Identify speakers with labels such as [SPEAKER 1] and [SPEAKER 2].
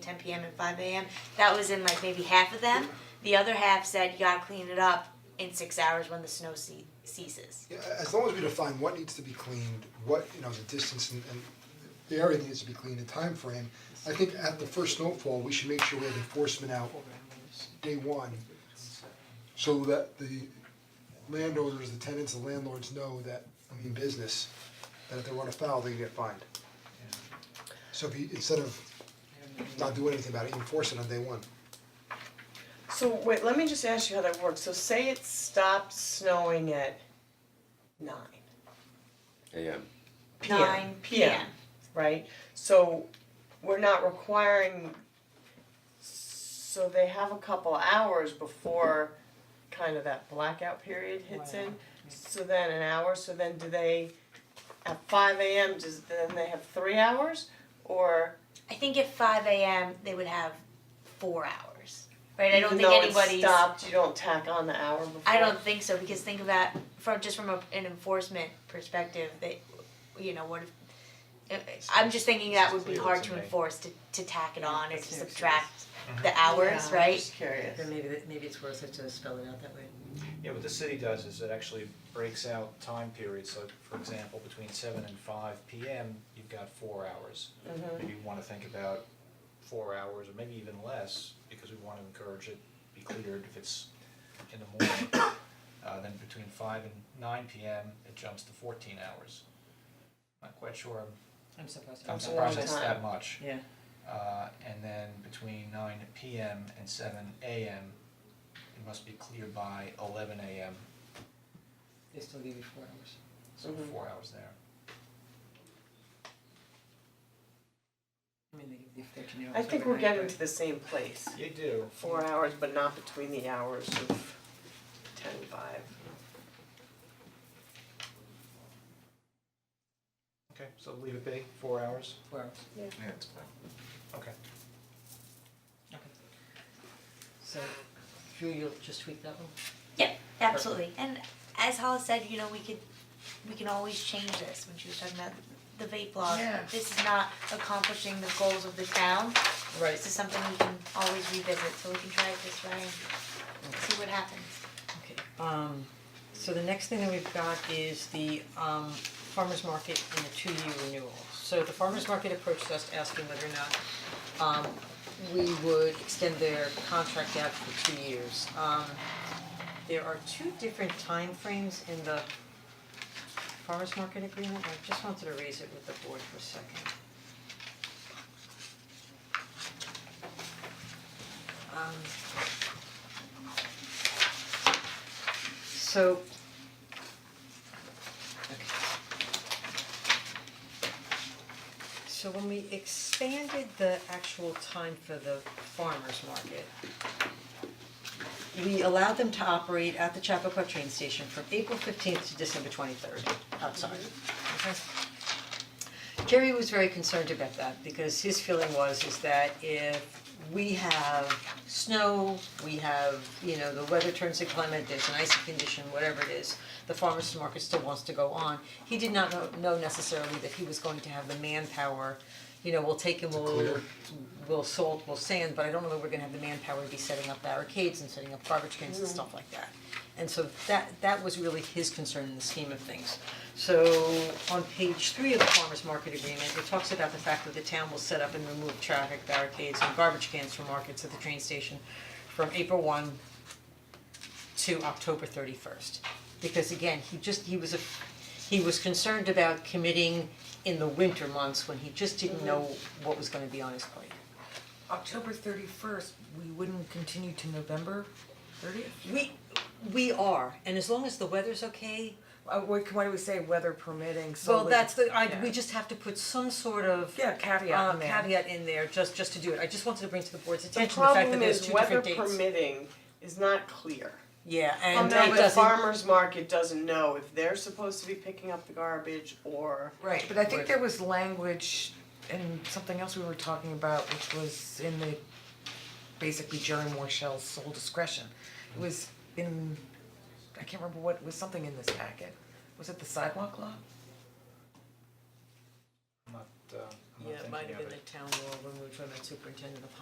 [SPEAKER 1] ten PM and five AM, that was in like maybe half of them. The other half said you gotta clean it up in six hours when the snow ce- ceases.
[SPEAKER 2] Yeah, a- as long as we define what needs to be cleaned, what, you know, the distance and and the area that needs to be cleaned, the time frame. I think at the first snowfall, we should make sure we have enforcement out day one. So that the landowners, the tenants, the landlords know that, I mean, business, that if they run afoul, they get fined. So if you, instead of not doing anything about it, you enforce it on day one.
[SPEAKER 3] So wait, let me just ask you how that works. So say it stopped snowing at nine,
[SPEAKER 4] AM.
[SPEAKER 3] PM.
[SPEAKER 1] Nine PM,
[SPEAKER 3] right? So we're not requiring, so they have a couple hours before kind of that blackout period hits in. So then an hour, so then do they, at five AM, does, then they have three hours? Or,
[SPEAKER 1] I think at five AM, they would have four hours, right? I don't
[SPEAKER 3] even
[SPEAKER 1] think
[SPEAKER 3] though
[SPEAKER 1] anybody's.
[SPEAKER 3] it stopped, you don't tack on the hour before?
[SPEAKER 1] I don't think so, because think about, from, just from a, an enforcement perspective, that, you know, what if, uh, I'm just thinking that would be hard to enforce, to, to tack it on or to subtract the hours,
[SPEAKER 3] Yeah, I'm
[SPEAKER 1] right?
[SPEAKER 3] just curious.
[SPEAKER 5] Then maybe that, maybe it's worth it to spell it out that way.
[SPEAKER 6] Yeah, what the city does is it actually breaks out time periods, so for example, between seven and five P M, you've got four hours.
[SPEAKER 3] Mm-hmm.
[SPEAKER 6] Maybe you wanna think about four hours or maybe even less, because we wanna encourage it to be cleared if it's in the morning. Uh then between five and nine P M, it jumps to fourteen hours. Not quite sure,
[SPEAKER 5] I'm surprised.
[SPEAKER 6] I'm
[SPEAKER 3] That's a
[SPEAKER 6] surprised
[SPEAKER 3] long
[SPEAKER 6] it's
[SPEAKER 3] time.
[SPEAKER 6] that much.
[SPEAKER 5] Yeah.
[SPEAKER 6] Uh, and then between nine PM and seven AM, it must be cleared by eleven AM,
[SPEAKER 5] They still give you four hours.
[SPEAKER 6] so
[SPEAKER 3] Mhm.
[SPEAKER 6] four hours there.
[SPEAKER 5] I mean, they give you thirteen hours.
[SPEAKER 3] I think we're
[SPEAKER 5] overnight,
[SPEAKER 3] getting
[SPEAKER 5] right?
[SPEAKER 3] to the same place.
[SPEAKER 6] You do.
[SPEAKER 3] Four hours, but not between the hours of ten and five.
[SPEAKER 6] Okay, so leave it be, four hours,
[SPEAKER 5] Four hours,
[SPEAKER 7] Yeah, it's fine.
[SPEAKER 6] okay.
[SPEAKER 5] okay. So, Drew, you'll just tweak that one?
[SPEAKER 1] Yeah, absolutely, and as Hollis said, you know, we could, we can always change this, when she was talking about the vape law.
[SPEAKER 5] Yeah.
[SPEAKER 1] This is not accomplishing the goals of the town, this
[SPEAKER 5] Right.
[SPEAKER 1] is something we can always revisit, so we can try it this way and see what happens.
[SPEAKER 5] Okay, um, so the next thing that we've got is the um farmer's market and the two-year renewal. So the farmer's market approached us asking whether or not um we would extend their contract out for two years. Um, there are two different timeframes in the farmer's market agreement, I just wanted to raise it with the board for a second. Um, So. So when we expanded the actual time for the farmer's market, we allowed them to operate at the Chappaqua train station from April fifteenth to December twenty-third outside. Okay. Jerry was very concerned about that because his feeling was is that if we have snow, we have, you know, the weather turns to climate, there's an icy condition, whatever it is, the farmer's market still wants to go on. He did not know know necessarily that he was going to have the manpower, you know, we'll take him, we'll
[SPEAKER 2] clear.
[SPEAKER 5] we'll salt, we'll sand, but I don't know that we're gonna have the manpower to be setting up barricades and setting up garbage cans and stuff like that. And so that that was really his concern in the scheme of things. So on page three of the farmer's market agreement, it talks about the fact that the town will set up and remove traffic barricades and garbage cans from markets at the train station from April one to October thirty first. Because again, he just, he was a, he was concerned about committing in the winter months when he just didn't know what was gonna be on his plate.
[SPEAKER 8] October thirty first, we wouldn't continue to November thirtieth?
[SPEAKER 5] We, we are, and as long as the weather's okay,
[SPEAKER 8] Uh, what, why do we say weather permitting solely?
[SPEAKER 5] well, that's the, I, we
[SPEAKER 8] Yeah.
[SPEAKER 5] just have to put some sort of
[SPEAKER 8] Yeah,
[SPEAKER 5] uh,
[SPEAKER 8] caveat in there.
[SPEAKER 5] caveat in there, just, just to do it, I just wanted to bring to the board's
[SPEAKER 3] The
[SPEAKER 5] attention the fact that
[SPEAKER 3] problem
[SPEAKER 5] there's
[SPEAKER 3] is
[SPEAKER 5] two
[SPEAKER 3] weather
[SPEAKER 5] different dates.
[SPEAKER 3] permitting is not clear.
[SPEAKER 5] Yeah, and
[SPEAKER 3] Well, now
[SPEAKER 5] it
[SPEAKER 3] the
[SPEAKER 5] doesn't,
[SPEAKER 3] farmer's market doesn't know if they're supposed to be picking up the garbage or.
[SPEAKER 5] right,
[SPEAKER 8] But I think there was language and something else we were talking about, which was in the, basically Jerry Morshell's sole discretion. It was in, I can't remember what, was something in this packet. Was it the sidewalk law?
[SPEAKER 6] I'm not, uh, I'm I'm not
[SPEAKER 5] Yeah, it might
[SPEAKER 6] thinking
[SPEAKER 5] have
[SPEAKER 6] of
[SPEAKER 5] been
[SPEAKER 6] it.
[SPEAKER 5] the town law when we were talking about superintendent of highways.